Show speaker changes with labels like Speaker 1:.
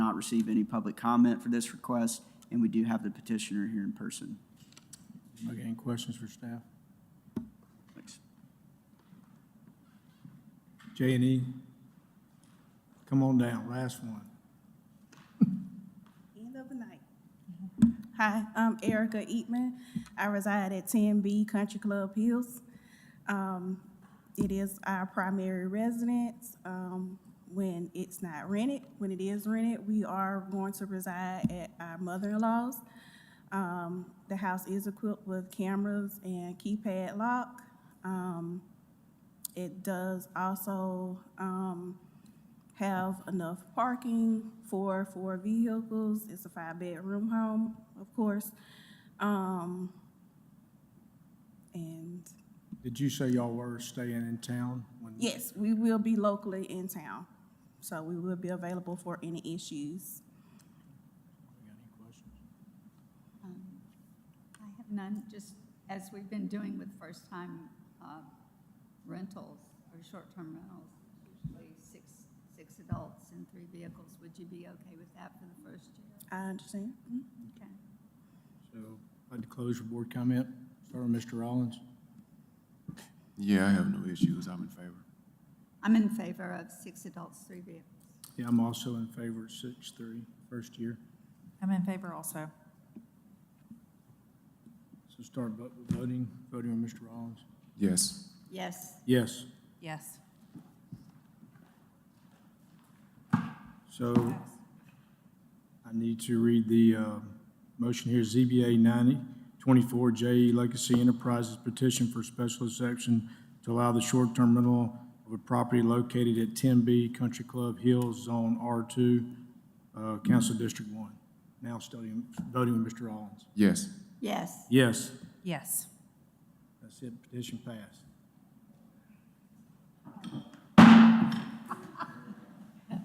Speaker 1: receive any public comment for this request, and we do have the petitioner here in person.
Speaker 2: Okay, any questions for staff?
Speaker 1: Thanks.
Speaker 2: J and E? Come on down, last one.
Speaker 3: End of the night. Hi, I'm Erica Eatman. I reside at 10B Country Club Hills. Um, It is our primary residence. Um, When it's not rented, when it is rented, we are going to reside at our mother-in-law's. Um, The house is equipped with cameras and keypad lock. Um, It does also um, have enough parking for four vehicles. It's a five-bedroom home, of course. Um, And
Speaker 2: Did you say y'all were staying in town? when-
Speaker 3: yes, we will be locally in town, so we will be available for any issues.
Speaker 2: You got any questions?
Speaker 4: Um, I have none, just as we've been doing with first-time uh, rentals or short-term rentals, usually six, six adults and three vehicles, would you be okay with that for the first year?
Speaker 3: I understand.
Speaker 4: Okay.
Speaker 2: So, I'd like to close your board comment. Start with Mr. Rollins.
Speaker 5: Yeah, I have no issues. I'm in favor.
Speaker 4: I'm in favor of six adults, three vehicles.
Speaker 2: Yeah, I'm also in favor of six-three, first year.
Speaker 6: I'm in favor also.
Speaker 2: So start vo- voting, voting on Mr. Rollins.
Speaker 5: Yes.
Speaker 4: Yes,
Speaker 2: Yes,
Speaker 6: Yes.
Speaker 2: so I need to read the uh, motion here, ZBA 9024 JE Legacy Enterprises petition for special exception to allow the short-term rental of a property located at 10B Country Club Hills, Zone R2, uh, Council District 1. Now studying, voting with Mr. Rollins.
Speaker 5: Yes.
Speaker 4: yes,
Speaker 2: Yes,
Speaker 6: Yes.
Speaker 2: that's it, petition passed.